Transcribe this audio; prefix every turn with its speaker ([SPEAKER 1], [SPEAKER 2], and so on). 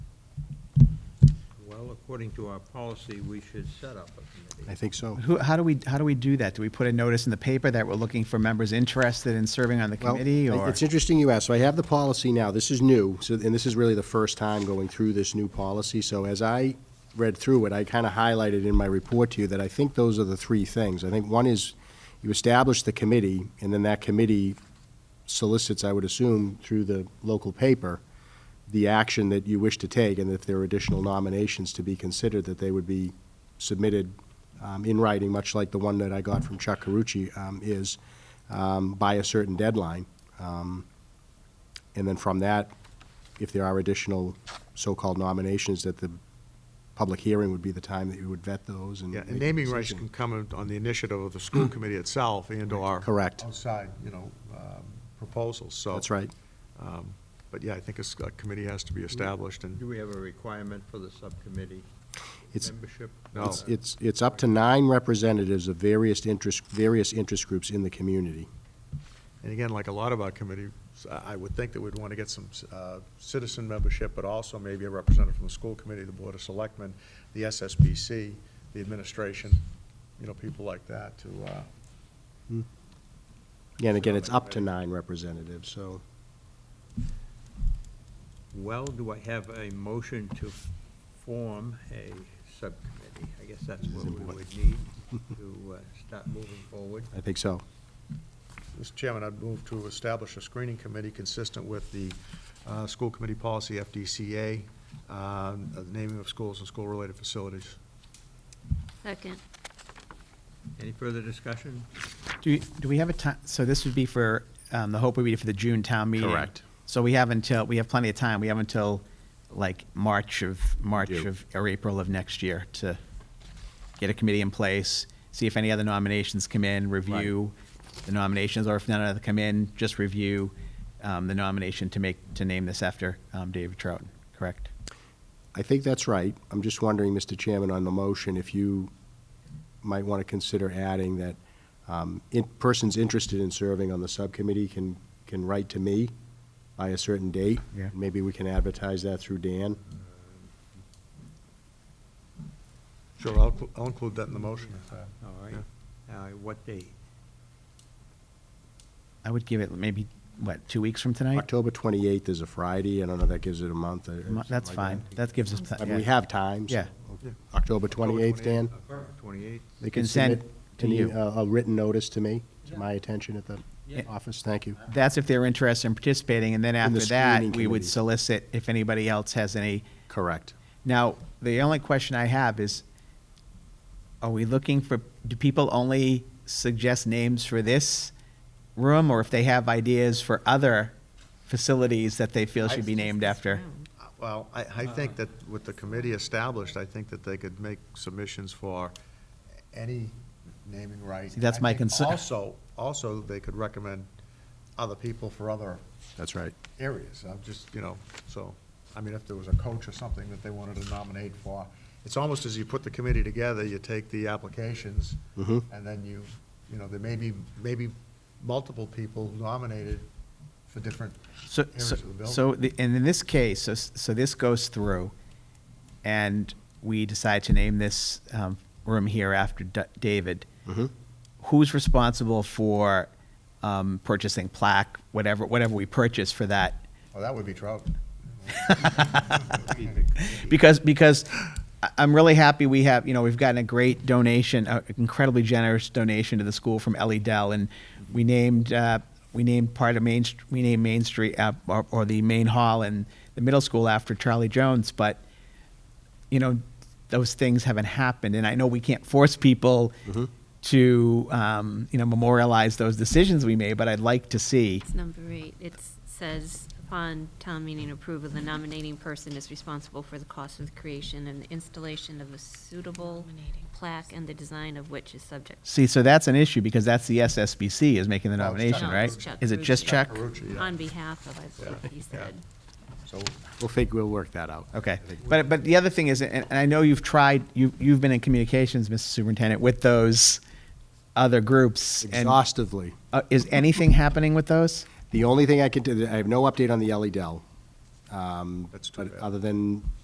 [SPEAKER 1] Well, according to our policy, we should set up a
[SPEAKER 2] I
[SPEAKER 1] committee.
[SPEAKER 2] think so.
[SPEAKER 3] Who, how do we, how do we do that? Do we put a notice in the paper that we're looking for members interested in serving on the
[SPEAKER 2] Well,
[SPEAKER 3] committee,
[SPEAKER 2] it-
[SPEAKER 3] or?
[SPEAKER 2] It's interesting you asked. So I have the policy now. This is new, so, and this is really the first time going through this new policy. So as I read through it, I kind of highlighted in my report to you that I think those are the three things. I think one is you establish the committee, and then that committee solicits, I would assume, through the local paper, the action that you wish to take, and if there are additional nominations to be considered, that they would be submitted um, in writing, much like the one that I got from Chuck Carucci um, is, um, by a certain deadline. Um, And then from that, if there are additional so-called nominations, that the public hearing would be the time that you would vet those and.
[SPEAKER 4] Yeah,
[SPEAKER 2] make
[SPEAKER 4] and
[SPEAKER 2] a
[SPEAKER 4] naming rights
[SPEAKER 2] Um, decision. Mm.
[SPEAKER 4] can come in- on the initiative of the school committee itself and/or.
[SPEAKER 2] Correct.
[SPEAKER 4] Outside, you know, um, proposals, so.
[SPEAKER 2] That's right.
[SPEAKER 4] um, But yeah, I think a s- a committee has to be established and,
[SPEAKER 1] Do we have a requirement for the subcommittee
[SPEAKER 2] It's,
[SPEAKER 1] membership?
[SPEAKER 4] No.
[SPEAKER 2] it's, it's, it's up to nine representatives of various interest, various interest groups in the community.
[SPEAKER 4] and again, like a lot of our committees, I I would think that we'd want to get some uh, citizen membership, but also maybe a representative from the school committee, the board of selectmen, the SSBC, the administration, you know, people like that to, uh,
[SPEAKER 2] Yeah, And again, it's up to nine representatives, so.
[SPEAKER 1] Well, do I have a motion to form a subcommittee? I guess that's what we would need to uh, start moving forward.
[SPEAKER 2] I think so.
[SPEAKER 4] Mr. Chairman, I'd move to establish a screening committee consistent with the uh, school committee policy, FDCA, um, of the naming of schools and school-related facilities.
[SPEAKER 5] Second.
[SPEAKER 1] Any further discussion?
[SPEAKER 3] Do, do we have a time, so this would be for, um, the hope would be for the June town meeting?
[SPEAKER 2] Correct.
[SPEAKER 3] So we have until, we have plenty of time, we have until, like, March of, March
[SPEAKER 2] do.
[SPEAKER 3] of, or April of next year to get a committee in place, see if any other nominations come in, review the nominations, or if none of them come in, just review, um, the nomination to make, to name this after, um, David Trouton, correct?
[SPEAKER 2] I think that's right. I'm just wondering, Mr. Chairman, on the motion, if you might want to consider adding that um, in- persons interested in serving on the subcommittee can, can write to me by a certain date.
[SPEAKER 3] Yeah.
[SPEAKER 2] Maybe we can advertise that through Dan.
[SPEAKER 4] Sure, I'll, clu- I'll include that in the motion. if, uh,
[SPEAKER 1] All right. Uh, What date?
[SPEAKER 3] I would give it maybe, what, two weeks from tonight?
[SPEAKER 2] October 28th is a Friday. I don't know, that gives it a month or or
[SPEAKER 3] Mo-
[SPEAKER 2] something
[SPEAKER 3] That's
[SPEAKER 2] like
[SPEAKER 3] fine, that gives us. pl-
[SPEAKER 2] I mean, we
[SPEAKER 3] yeah.
[SPEAKER 2] have time. so-
[SPEAKER 3] Yeah.
[SPEAKER 4] Yeah.
[SPEAKER 2] October 28th, Dan?
[SPEAKER 1] Uh, Twenty-eighth?
[SPEAKER 2] They
[SPEAKER 3] can send
[SPEAKER 2] submit
[SPEAKER 3] to
[SPEAKER 2] an e-
[SPEAKER 3] you.
[SPEAKER 2] A a written notice to me, to my attention at the
[SPEAKER 3] Yeah.
[SPEAKER 2] office. Thank you.
[SPEAKER 3] That's if they're interested in participating, and then
[SPEAKER 2] In the
[SPEAKER 3] after that,
[SPEAKER 2] screening
[SPEAKER 3] we would
[SPEAKER 2] committee.
[SPEAKER 3] solicit if anybody else has any.
[SPEAKER 2] Correct.
[SPEAKER 3] Now, the only question I have is, are we looking for, do people only suggest names for this room, or if they have ideas for other facilities that they feel should be named after?
[SPEAKER 5] Oh,
[SPEAKER 4] Well, I, I
[SPEAKER 2] Uh-huh.
[SPEAKER 4] think that with the committee established, I think that they could make submissions for any naming right.
[SPEAKER 3] See, that's
[SPEAKER 4] I
[SPEAKER 3] my
[SPEAKER 4] think
[SPEAKER 3] concern.
[SPEAKER 4] Also, also, they could recommend other people for other
[SPEAKER 2] That's right.
[SPEAKER 4] areas. I'm just, you know, so, I mean, if there was a coach or something that they wanted to nominate for, it's almost as you put the committee together, you take the applications,
[SPEAKER 2] Mhm.
[SPEAKER 4] and then you, you know, there may be, maybe multiple people nominated for different
[SPEAKER 3] So,
[SPEAKER 4] areas
[SPEAKER 3] so,
[SPEAKER 4] of the building.
[SPEAKER 3] so the- and in this case, so, so this goes through, and we decide to name this um, room here after D- David.
[SPEAKER 2] Mhm.
[SPEAKER 3] Who's responsible for um, purchasing plaque, whatever, whatever we purchase for that?
[SPEAKER 4] Well, that would be trout.
[SPEAKER 3] Because, because I- I'm really happy we have, you know, we've gotten a great donation, a incredibly generous donation to the school from Ellie Dell, and we named, uh, we named part of Main, St- we named Main Street, uh, or, or the main hall and the middle school after Charlie Jones, but, you know, those things haven't happened, and I know we can't force people to, um, you know, memorialize those decisions we made, but I'd like to see,
[SPEAKER 5] It's number eight. It says, upon town meeting approval, the nominating person is responsible for the cost of the creation and the installation of a suitable plaque and the design of which is subject.
[SPEAKER 3] see, so that's an issue, because that's the SSBC is making the
[SPEAKER 4] No, it's Chuck.
[SPEAKER 3] nomination,
[SPEAKER 5] No,
[SPEAKER 3] right?
[SPEAKER 5] it's Chuck
[SPEAKER 3] Is it just
[SPEAKER 5] Carucci.
[SPEAKER 3] check?
[SPEAKER 4] Carucci, yeah.
[SPEAKER 5] On behalf of, I believe he said.
[SPEAKER 4] So,
[SPEAKER 2] We'll think, we'll work that out.
[SPEAKER 3] Okay,
[SPEAKER 2] I think-
[SPEAKER 3] but, but the other thing is, and and I know you've tried, you, you've been in communications, Mr. Superintendent, with those other groups. and-
[SPEAKER 2] Exhaustively.
[SPEAKER 3] Uh, Is anything happening with those?
[SPEAKER 2] The only thing I could, do- I have no update on the Ellie Dell. um,
[SPEAKER 4] That's too
[SPEAKER 2] But
[SPEAKER 4] bad.
[SPEAKER 2] other than